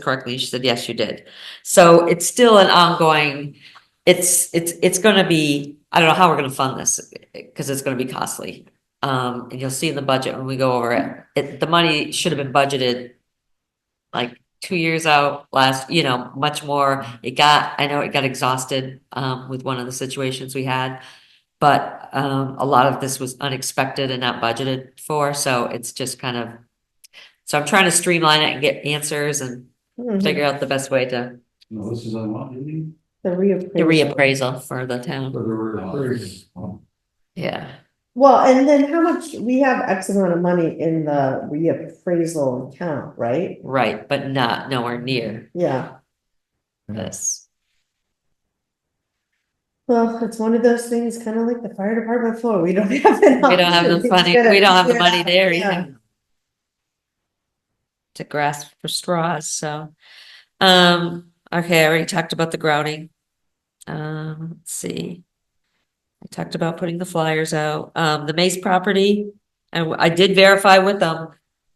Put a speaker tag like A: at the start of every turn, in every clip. A: correctly, she said, yes, you did. So it's still an ongoing, it's, it's, it's gonna be, I don't know how we're gonna fund this, because it's gonna be costly. Um, and you'll see in the budget when we go over it, it, the money should have been budgeted like two years out last, you know, much more. It got, I know it got exhausted, um, with one of the situations we had. But, um, a lot of this was unexpected and not budgeted for, so it's just kind of, so I'm trying to streamline it and get answers and
B: Mm-hmm.
A: figure out the best way to,
C: No, this is unlocked, isn't
B: The
A: the
B: reappraisal.
A: reappraisal for the
C: it?
A: town. Yeah.
B: Well, and then how much, we have X amount of money in the reappraisal account, right?
A: Right, but not nowhere near
B: Yeah,
A: this.
B: well, it's one of those things, kind of like the fire department floor, we don't have. We
A: We don't have the money, we don't have the money there either. To grasp for straws, so. Um, okay, I already talked about the grouting. Um, let's see. I talked about putting the flyers out, um, the Mace property, and I did verify with them.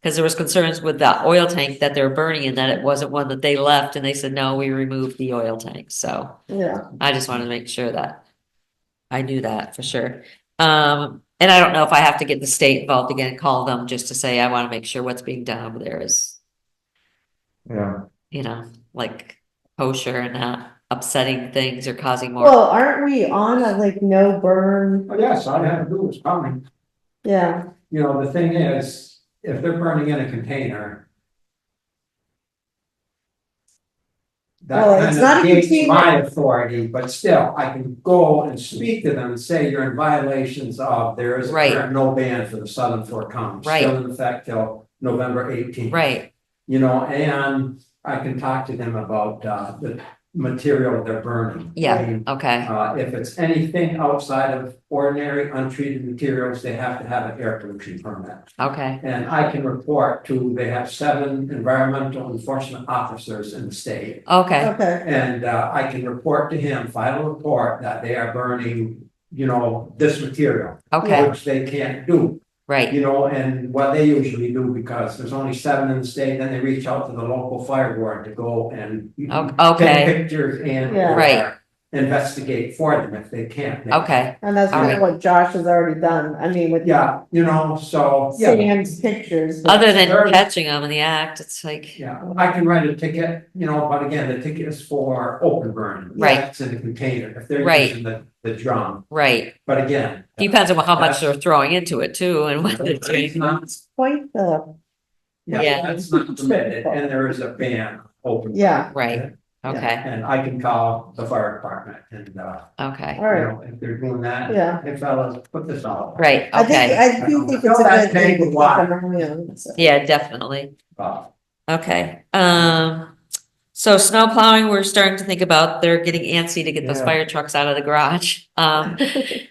A: Cause there was concerns with the oil tank that they're burning and that it wasn't one that they left, and they said, no, we removed the oil tank, so.
B: Yeah,
A: I just wanted to make sure that I knew that for sure. Um, and I don't know if I have to get the state involved again, call them just to say, I want to make sure what's being done over there is,
C: Yeah.
A: you know, like kosher and not upsetting things or causing more.
B: well, aren't we on a like no burn,
C: Oh, yes, I have rules coming.
B: yeah,
C: You know, the thing is, if they're burning in a container.
B: Well,
C: That
B: it's
C: kind
B: not
C: of
B: a
C: gates
B: container.
C: my authority, but still, I can go and speak to them and say you're in violations of, there is
A: Right.
C: there are no ban for the southern Fort Common.
A: Right.
C: Still in effect till November eighteenth.
A: Right,
C: You know, and I can talk to them about uh the material they're burning. I
A: yeah,
C: mean,
A: okay,
C: Uh, if it's anything outside of ordinary untreated materials, they have to have an air pollution permit.
A: okay,
C: And I can report to, they have seven environmental enforcement officers in the state.
A: okay,
B: okay,
C: And uh, I can report to him, file a report that they are burning, you know, this material,
A: okay,
C: which they can't do.
A: right,
C: You know, and what they usually do, because there's only seven in the state, then they reach out to the local fire ward to go and.
A: O-
C: Take
A: okay,
C: pictures and.
B: Yeah.
A: Right.
C: Investigate for them if they can't.
A: okay,
B: and that's
A: All
B: kind of what Josh has already done, I mean, with.
C: Yeah, you know, so, yeah,
B: Sam's pictures. but-
A: other than
C: Sure.
A: catching them in the act, it's like,
C: yeah, I can write a ticket, you know, but again, the ticket is for open burn.
A: Right.
C: It's in the container, if they're
A: Right.
C: using the, the drum,
A: right,
C: but again.
A: depends on how much
C: That's-
A: they're throwing into it too and what they're
C: It's
A: doing.
C: not,
B: Quite the,
A: Yeah.
C: yeah, that's not permitted, and there is a ban, open. burn.
B: yeah,
A: Right, okay,
C: And I can call the fire department and, uh,
A: okay,
B: all
C: you
B: right,
C: know, if they're doing that.
B: Yeah.
C: Hey fellas, put this out.
A: right,
B: I think,
A: okay,
B: I do think it's a
C: Fill that
B: good thing.
C: tank with
B: to
C: water.
B: keep an eye on, so.
A: yeah, definitely.
C: Uh,
A: Okay, um, so snow plowing, we're starting to think about, they're getting antsy to get those
C: Yeah.
A: fire trucks out of the garage. Um,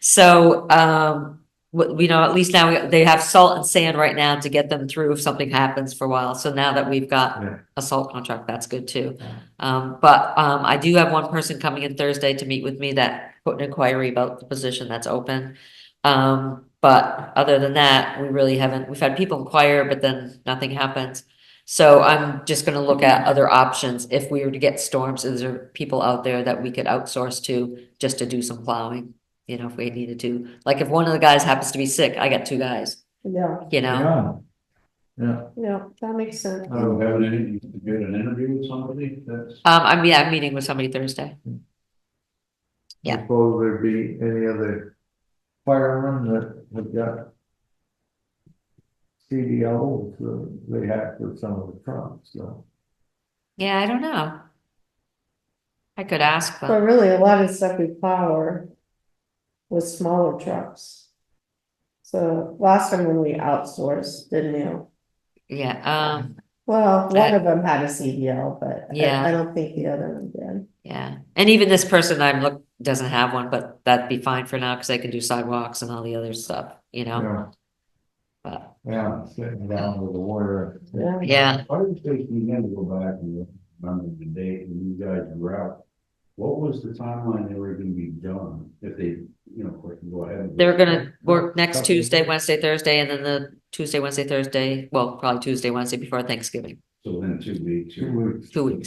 A: so, um, we, we know, at least now we- they have salt and sand right now to get them through if something happens for a while. So now that we've got
C: Yeah.
A: a salt contract, that's good too.
C: Yeah.
A: Um, but, um, I do have one person coming in Thursday to meet with me that put an inquiry about the position that's open. Um, but other than that, we really haven't, we've had people inquire, but then nothing happens. So I'm just gonna look at other options. If we were to get storms, is there people out there that we could outsource to just to do some plowing? You know, if we needed to, like if one of the guys happens to be sick, I got two guys,
B: Yeah,
A: you know?
C: Yeah,
B: yeah, that makes sense.
C: I don't have any, you get an interview with somebody that's.
A: Um, I mean, I'm meeting with somebody Thursday. Yeah.
C: Suppose there be any other firemen that have got. CDLs uh, they have for some of the trucks, so.
A: Yeah, I don't know. I could ask
B: But
A: them.
B: really, a lot of stuff we power with smaller trucks. So last time when we outsourced, didn't you?
A: Yeah, um,
B: Well,
A: Right.
B: one of them had a CDL, but
A: Yeah.
B: I- I don't think the other one did.
A: yeah. And even this person I'm look, doesn't have one, but that'd be fine for now, cause they can do sidewalks and all the other stuff, you know?
D: Yeah,
A: Oh. But,
D: yeah, sitting down with the lawyer.
B: Yeah.
A: yeah,
D: I was thinking, you had to go back and remember the date when you guys were out. What was the timeline they were gonna be done if they, you know, of course, you go ahead? and-
A: They're gonna work next
D: Couple
A: Tuesday,
D: days.
A: Wednesday, Thursday, and then the Tuesday, Wednesday, Thursday, well, probably Tuesday, Wednesday before Thanksgiving.
D: So within two weeks. you're-
C: Two weeks.
A: two weeks.